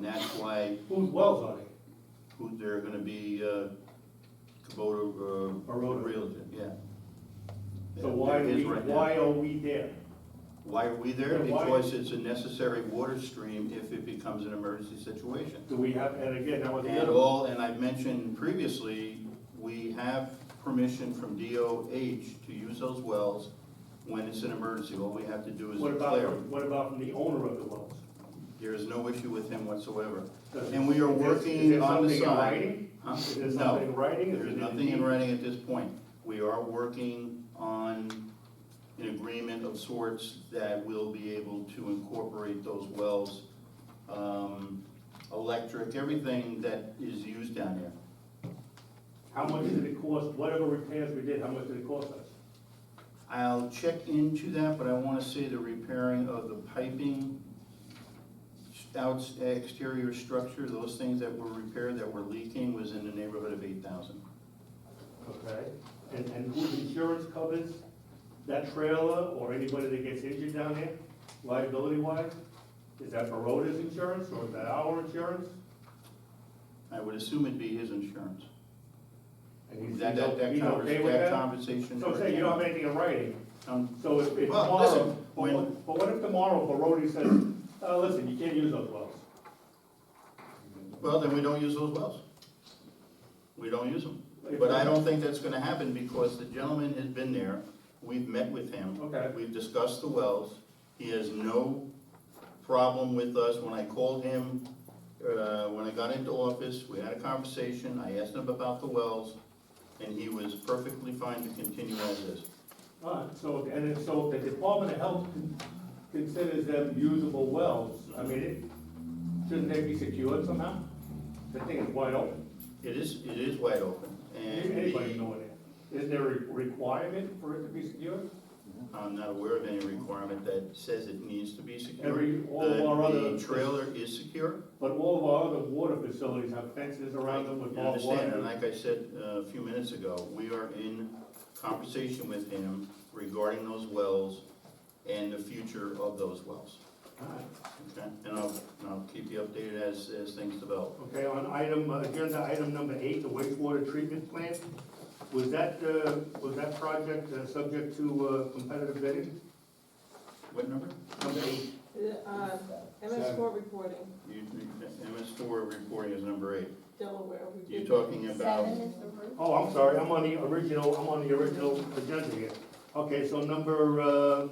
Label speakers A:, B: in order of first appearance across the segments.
A: that's why
B: Who's wells on it?
A: who, they're gonna be, uh, Kubota, uh.
B: A road.
A: Realtor, yeah.
B: So why are
A: There is
B: we,
A: right now.
B: why are we there?
A: Why are we there?
B: Yeah, why-
A: Because it's a necessary water stream if it becomes an emergency situation.
B: Do we have, and again, that was the
A: And
B: other,
A: all, and I mentioned previously, we have permission from DOH to use those wells when it's an emergency. All we have to do is
B: what
A: declare.
B: about,
A: them.
B: what about from the owner of the wells?
A: There is no issue with him whatsoever.
B: Does-
A: And we are
B: is there-
A: working on the
B: Is there something in
A: side.
B: writing?
A: Huh?
B: Is there
A: No.
B: something in writing?
A: There is nothing in writing at this point. We are working on an agreement of sorts that will be able to incorporate those wells, um, electric, everything that is used down there.
B: How much did it cost, whatever repairs we did, how much did it cost us?
A: I'll check into that, but I wanna say the repairing of the piping, outs, eh, exterior structure, those things that were repaired that were leaking was in the neighborhood of eight thousand.
B: Okay, and, and whose insurance covers that trailer or anybody that gets injured down there, liability wise? Is that Baroda's insurance or is that our insurance?
A: I would assume it'd be his insurance.
B: And he's-
A: That, that, that
B: he's
A: convers-
B: okay with
A: that
B: that?
A: conversation.
B: So I'm saying you don't have anything in writing,
A: Um,
B: so if, if
A: Well,
B: tomorrow,
A: listen,
B: but
A: when-
B: what, but what if tomorrow Barodi says, uh, listen, you can't use those wells?
A: Well, then we don't use those wells. We don't use them. But I don't think that's gonna happen because the gentleman has been there, we've met with him.
B: Okay.
A: We've discussed the wells, he has no problem with us. When I called him, uh, when I got into office, we had a conversation, I asked him about the wells, and he was perfectly fine to continue as is.
B: Alright, so, if- and if, so if the Department of Health con- considers them usable wells, I mean, it, shouldn't they be secured somehow? The thing is wide open,
A: It is, it is wide open, and
B: anybody can
A: the-
B: go in there. Is there a requirement for it to be secured?
A: I'm not aware of any requirement that says it needs to be secure.
B: Every- all of our
A: The-
B: other-
A: The trailer is secure.
B: But all of our other water facilities have fences around them with
A: You
B: barbed
A: understand, and
B: wire.
A: like I said uh, a few minutes ago, we are in conversation with him regarding those wells and the future of those wells,
B: Alright.
A: okay? And I'll, and I'll keep you updated as, as things develop.
B: Okay, on item, uh, agenda item number eight, the wastewater treatment plant, was that, uh, was that project, uh, subject to, uh, competitive bidding?
A: What number?
B: Number eight.
C: Uh, MS four reporting,
A: You- MS four reporting is number eight.
C: Delaware. we
A: You're
C: did-
A: talking about,
D: Seven is approved.
B: Oh, I'm sorry, I'm on the original, I'm on the original agenda here. Okay, so number, uh,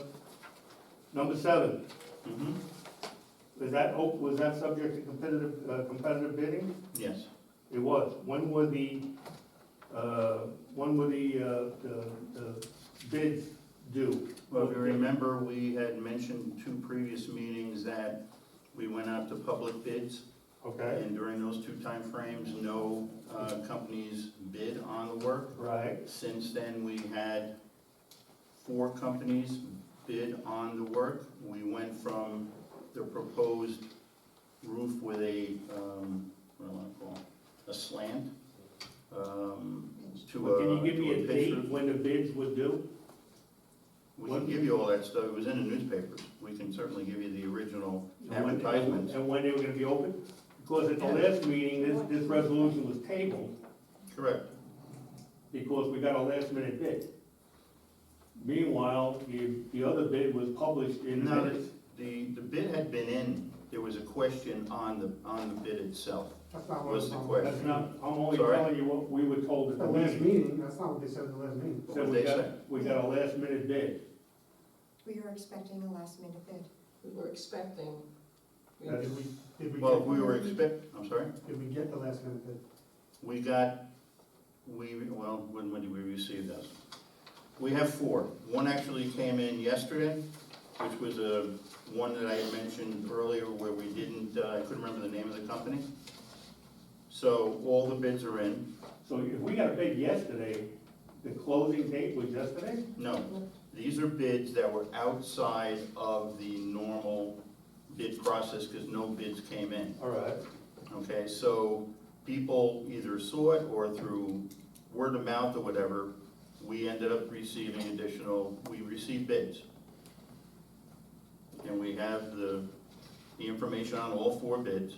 B: number seven,
A: Mhm,
B: was that, oh, was that subject to competitive, uh, competitive bidding?
A: yes.
B: It was. When were the, uh, when were the, uh, the, the bids due?
A: Well, if you remember, we had mentioned two previous meetings that we went out to public bids.
B: Okay,
A: And during those two timeframes, no uh, companies bid on the work.
B: right,
A: Since then, we had four companies bid on the work. We went from the proposed roof with a, um, what do I wanna call it, a slant, um, to a.
B: Well, can you give me
A: to
B: a
A: pitch
B: date
A: roof.
B: when the bids were due?
A: We can give you all that stuff, it was in the newspapers. We can certainly give you the original
B: And when-
A: advertisements.
B: And when they were gonna be open? Because at the last meeting, this, this resolution was tabled,
A: Correct.
B: because we got a last minute bid. Meanwhile, the, the other bid was published in
A: No,
B: minutes.
A: the, the the bid had been in, there was a question on the, on the bid itself.
E: That's not what
A: What's
E: was
A: the
E: on
A: question?
B: That's not, I'm only
A: Sorry?
B: telling you what we were told at
E: the
B: the
E: last
B: meeting.
E: meeting, that's not what they said at the last meeting.
A: What
B: Said
A: did
B: we
A: they
B: got-
A: say?
B: We got a last minute bid.
D: We were expecting a last minute bid.
C: We were expecting. we-
E: Did we, did we?
A: Well,
E: get-
A: we were expect, I'm sorry,
E: Did we get the last minute bid?
A: we got, we, well, when, when did we receive those? We have four. One actually came in yesterday, which was a, one that I had mentioned earlier where we didn't, uh, I couldn't remember the name of the company. So all the bids are in.
B: So if we got a bid yesterday, the closing date was yesterday?
A: No, these are bids that were outside of the normal bid process because no bids came in.
B: All right.
A: Okay, so people either saw it or through word of mouth or whatever, we ended up receiving additional, we received bids. And we have the, the information on all four bids.